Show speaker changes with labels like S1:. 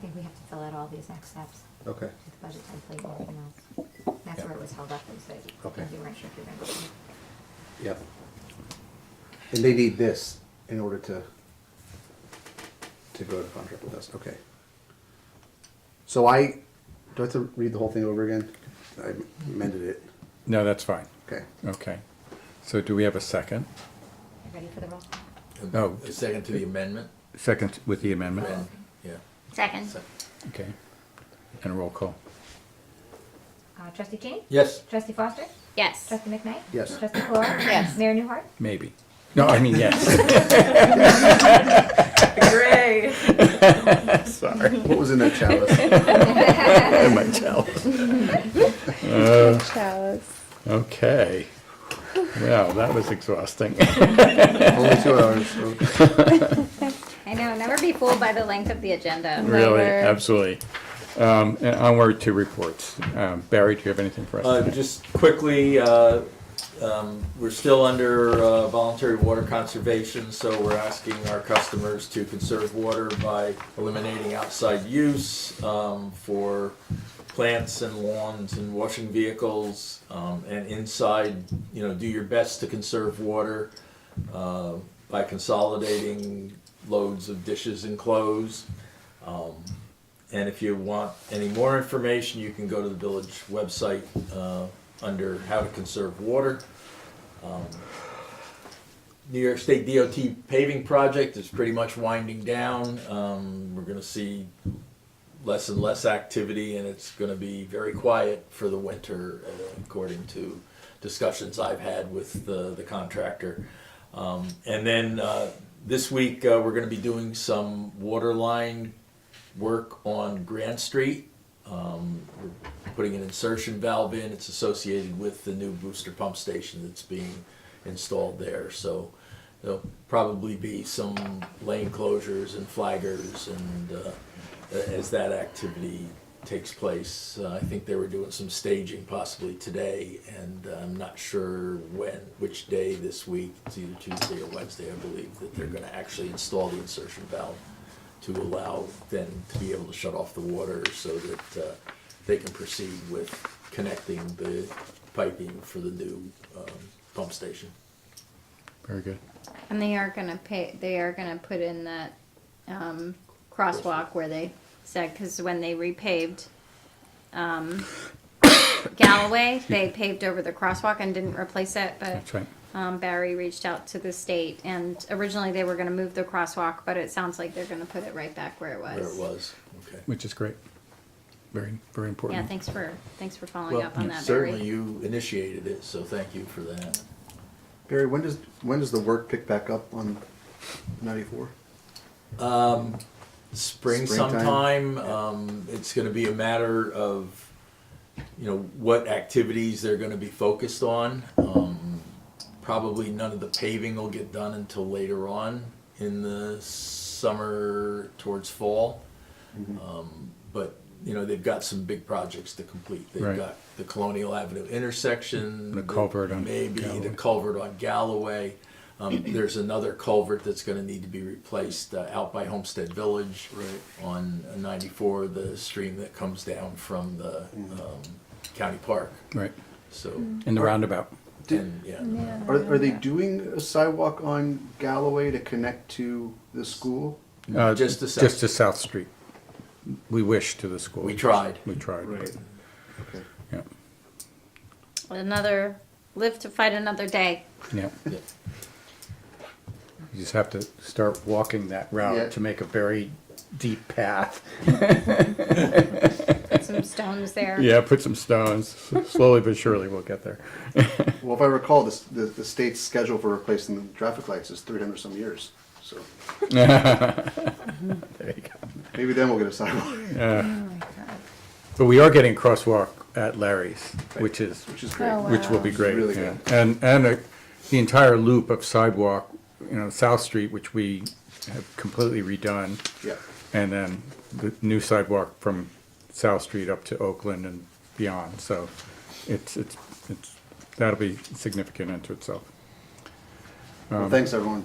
S1: think we have to fill out all these next steps,
S2: Okay,
S1: with the budget template and everything else. That's
S2: Yeah.
S1: where it was held up, is that
S2: Okay.
S1: you weren't sure if you were gonna. do it.
S2: yep. And they need this in order to, to go to contract with us, okay. So I, do I have to read the whole thing over again? I amended it,
S3: No, that's fine.
S2: okay.
S3: Okay. So do we have a second?
S1: You Ready for the roll? call?
S3: No.
S4: A second to the amendment?
S3: Second with the amendment?
S4: Amend- Yeah.
S5: Second.
S4: Sec-
S3: Okay. And roll call.
S1: Uh, trustee Cheney?
S4: Yes.
S1: Trustee Foster?
S5: Yes.
S1: Trustee McKnight?
S2: Yes.
S1: Trustee Clark?
S5: Yes.
S1: Mayor Newhart?
S3: Maybe. No, I mean, yes.
S6: Great.
S3: Sorry.
S2: What was in that chalice?
S3: In my chalice. Uh, Okay. Well, that was exhausting.
S2: Only two hours, so-
S5: I know, never be fooled by the length of the agenda.
S3: Really,
S7: Never.
S3: absolutely. Um, and onward to reports. Um, Barry, do you have anything for us?
S4: Uh,
S3: tonight?
S4: just quickly, uh, um, we're still under, uh, voluntary water conservation, so we're asking our customers to conserve water by eliminating outside use, um, for plants and lawns and washing vehicles, um, and inside, you know, do your best to conserve water, uh, by consolidating loads of dishes and clothes. And if you want any more information, you can go to the village website uh, under how to conserve water. Um, New York State DOT paving project is pretty much winding down. Um, We're gonna see less and less activity, and it's gonna be very quiet for the winter, uh, according to discussions I've had with the the contractor. Um, And then uh, this week, uh, we're gonna be doing some water line work on Grand Street. Um, we're putting an insertion valve in. It's associated with the new booster pump station that's being installed there. So there'll probably be some lane closures and flaggers and uh, as that activity takes place. Uh, I think they were doing some staging possibly today, and uh, I'm not sure when, which day this week. It's either Tuesday or Wednesday, I believe, that they're going to actually install the insertion valve to allow them to be able to shut off the water so that uh, they can proceed with connecting the piping for the new um, pump station.
S3: Very good.
S5: And they are gonna pay, they are gonna put in that, um, crosswalk where they said, cause when they repaved, um, Galloway, they paved over the crosswalk and didn't replace it, but,
S3: That's right.
S5: um, Barry reached out to the state and originally they were gonna move the crosswalk, but it sounds like they're gonna put it right back where it was.
S4: Where it was, okay.
S3: Which is great. Very, very important.
S5: Yeah, thanks for, thanks for following
S4: Well,
S5: up on that, Barry.
S4: certainly you initiated it, so thank you for that.
S2: Barry, when does, when does the work pick back up on ninety-four?
S4: spring
S2: Springtime.
S4: sometime. Um, it's going to be a matter of, you know, what activities they're going to be focused on. Um, probably none of the paving will get done until later on in the summer towards fall. Um, but you know, they've got some big projects to complete. They've
S3: Right.
S4: got the Colonial Avenue intersection,
S3: The culvert on
S4: maybe the
S3: Galloway.
S4: culvert on Galloway. Um, there's another culvert that's gonna need to be replaced uh, out by Homestead Village. On ninety-four, the stream that comes down from the,
S3: Mm.
S4: um, county park,
S3: Right.
S4: so,
S3: In the roundabout.
S4: and, yeah.
S2: Are, are they doing a sidewalk on Galloway to connect to the school?
S3: Uh,
S4: Just to south.
S3: Just to South Street. We wish to the school.
S4: We tried.
S3: We tried. but-
S2: Okay.
S3: Yeah,
S5: Another, live to fight another day.
S3: yeah.
S4: Yeah.
S3: You just have to start walking that
S2: Yeah.
S3: route to make a very deep path.
S5: Put some stones there.
S3: Yeah, put some stones. Slowly but surely we'll get there.
S2: Well, if I recall, this, the, the state's schedule for replacing the traffic lights is three hundred some years, so
S3: There you go.
S2: maybe then we'll get a sidewalk,
S3: But we are getting crosswalk at Larry's, which is,
S2: which is great.
S3: Oh, which will be great.
S2: Really
S3: yeah.
S2: good.
S3: And, and uh, the entire loop of sidewalk, you know, South Street, which we have completely redone.
S2: Yeah,
S3: And then the new sidewalk from South Street up to Oakland and beyond, so it's, it's, it's, that'll be significant unto itself. Um,
S2: well, thanks everyone